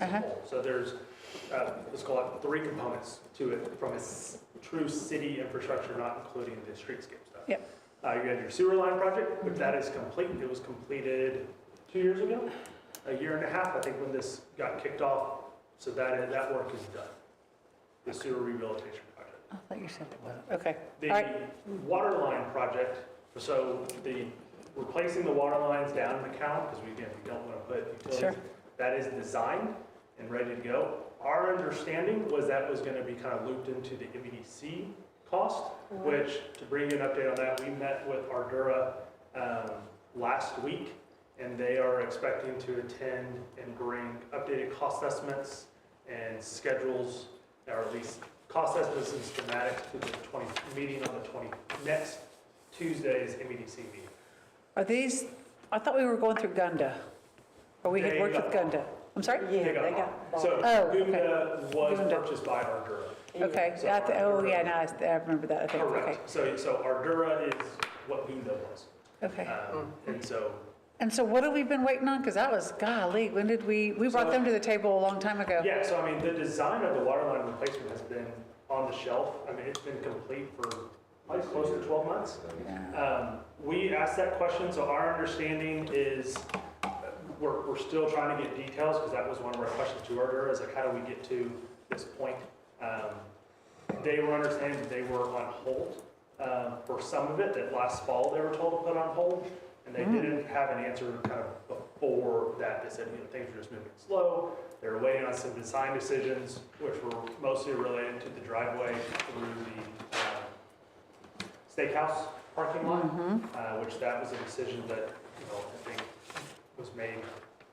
Uh-huh. So there's, uh, let's call it three components to it from a s- true city infrastructure, not including the streetscape stuff. Yep. Uh, You had your sewer line project, which that is complete. It was completed two years ago, a year and a half, I think, when this got kicked off. So that, that work is done, the sewer rehabilitation project. I thought you said it wasn't. Okay. All The right. water line project, so the, replacing the water lines down in McCown, because we, again, we don't want to put Sure. utilities, that is designed and ready to go. Our understanding was that was going to be kind of looped into the MEDC cost, which, to bring you an update on that, we met with Ardura um, last week, and they are expecting to attend and bring updated cost estimates and schedules, or at least cost estimates and schematics to the 20, meeting on the 20, next Tuesday's MEDC meeting. Are these, I thought we were going through Gunda. Or we had They worked with got- Gunda. I'm sorry? Yeah, They they got got bought. bought. So Oh, okay. Gunda was Gunda. purchased by Ardura. Okay, So yeah, I thi- oh, Ardura- yeah, now I s- I remember that, I think, okay. Correct. So, so Ardura is what Gunda was. Okay, Mm-hmm. Um, And so and so what have we been waiting on? Because that was, golly, when did we, we brought So- them to the table a long time ago. Yeah, so I mean, the design of the water line replacement has been on the shelf. I mean, it's been complete for probably close to 12 months. Um, We asked that question, so our understanding is, uh, we're, we're still trying to get details, because that was one of our questions to earlier, is like, how do we get to this point? Um, They were understanding that they were on hold um, for some of it, that last fall they were told to put on hold, and they didn't have an answer kind of before that. They said, you know, things were just moving slow, they were waiting on some design decisions, which were mostly related to the driveway through the uh, steakhouse parking lot, Mm-hmm. uh, which that was a decision that, you know, I think was made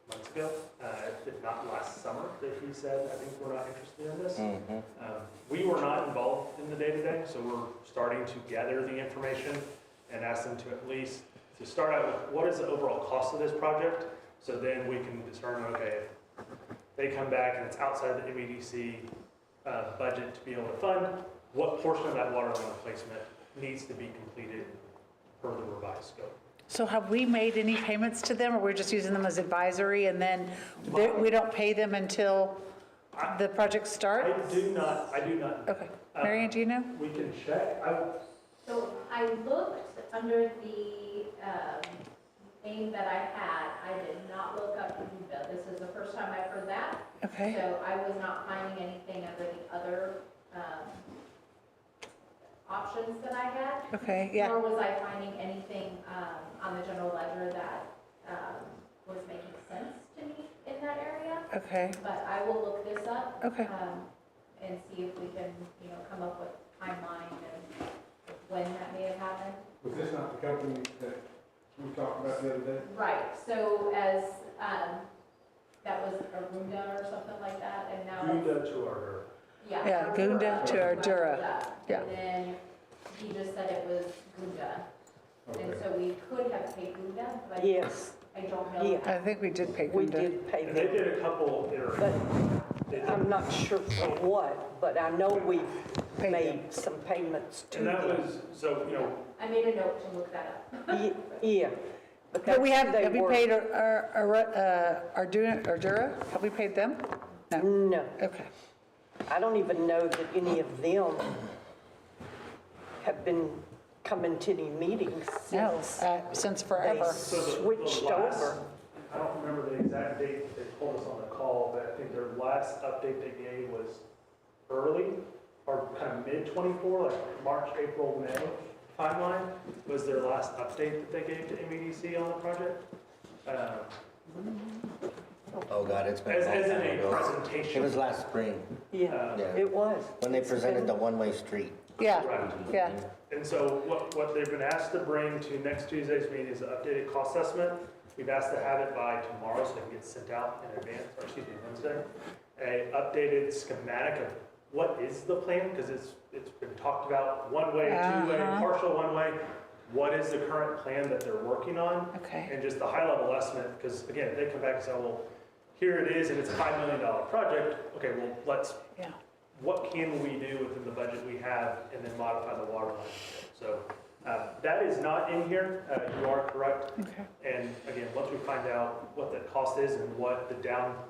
months ago, uh, if not last summer, that he said, I think we're not interested in this. Um, We were not involved in the day-to-day, so we're starting to gather the information and ask them to at least, to start out with, what is the overall cost of this project? So then we can determine, okay, if they come back and it's outside the MEDC uh, budget to be able to fund, what portion of that water line replacement needs to be completed per the revised scope? So have we made any payments to them, or we're just using them as advisory, and then they- we don't pay them until the project I starts? do not, I do not, Okay, Mary Ann, do you know? we can check, I, So I looked under the um, name that I had, I did not look up Uva. This is the first time I've heard that. Okay, So I was not finding anything under the other um, options that I had. okay, yeah. Nor was I finding anything um, on the general ledger that um, was making sense to me in that area. Okay, But I will look this up. Okay. um, And see if we can, you know, come up with timeline and when that may have happened. Was this not the company that we talked about the other day? Right, so as, um, that was Arunda or something like that, and now, Gunda to our, yeah. Yeah, Gunda to Arunda. Ardura, yeah. And then he just said it was Gunda, and Okay. so we could have paid Gunda, but Yes, I don't know. Yeah. I think we did pay we Gunda. did pay and they them, did a couple iterations. but um, They did- I'm not sure for what, but I know we Paid them. made some payments to And that them. was, so, you know, I made a note to look that up. Ye- Yeah, but But we that's have, who they have we were. paid our- our, our, uh, Arduna- Ardura? Have we paid them? No, No, okay. I don't even know that any of them have been coming to any meetings No, since uh, since they forever. So the- the switched last- over. I don't remember the exact date that they told us on the call, but I think their last update they gave was early or kind of mid '24, like March, April, May timeline was their last update that they gave to MEDC on the project. Um, Oh, God, it's been a As, long as in time a ago. It presentation. was last spring, Yeah, Uh, yeah, it was. when they It's been- presented the one-way street. Yeah, Right. yeah, And so what, what they've been asked to bring to next Tuesday's meeting is an updated cost estimate. We've asked to have it by tomorrow so it can get sent out in advance, or excuse me, Wednesday. A updated schematic of what is the plan, because it's, it's been talked about, one-way, two-way, Uh-huh. partial one-way. What is the current plan that they're working on? okay. And just the high-level estimate, because again, if they come back and say, well, here it is, and it's a $5 million project, okay, well, let's Yeah, what can we do within the budget we have and then modify the water line? So uh, that is not in here, Uh, you are correct. okay. And again, once we find out what the cost is and what the down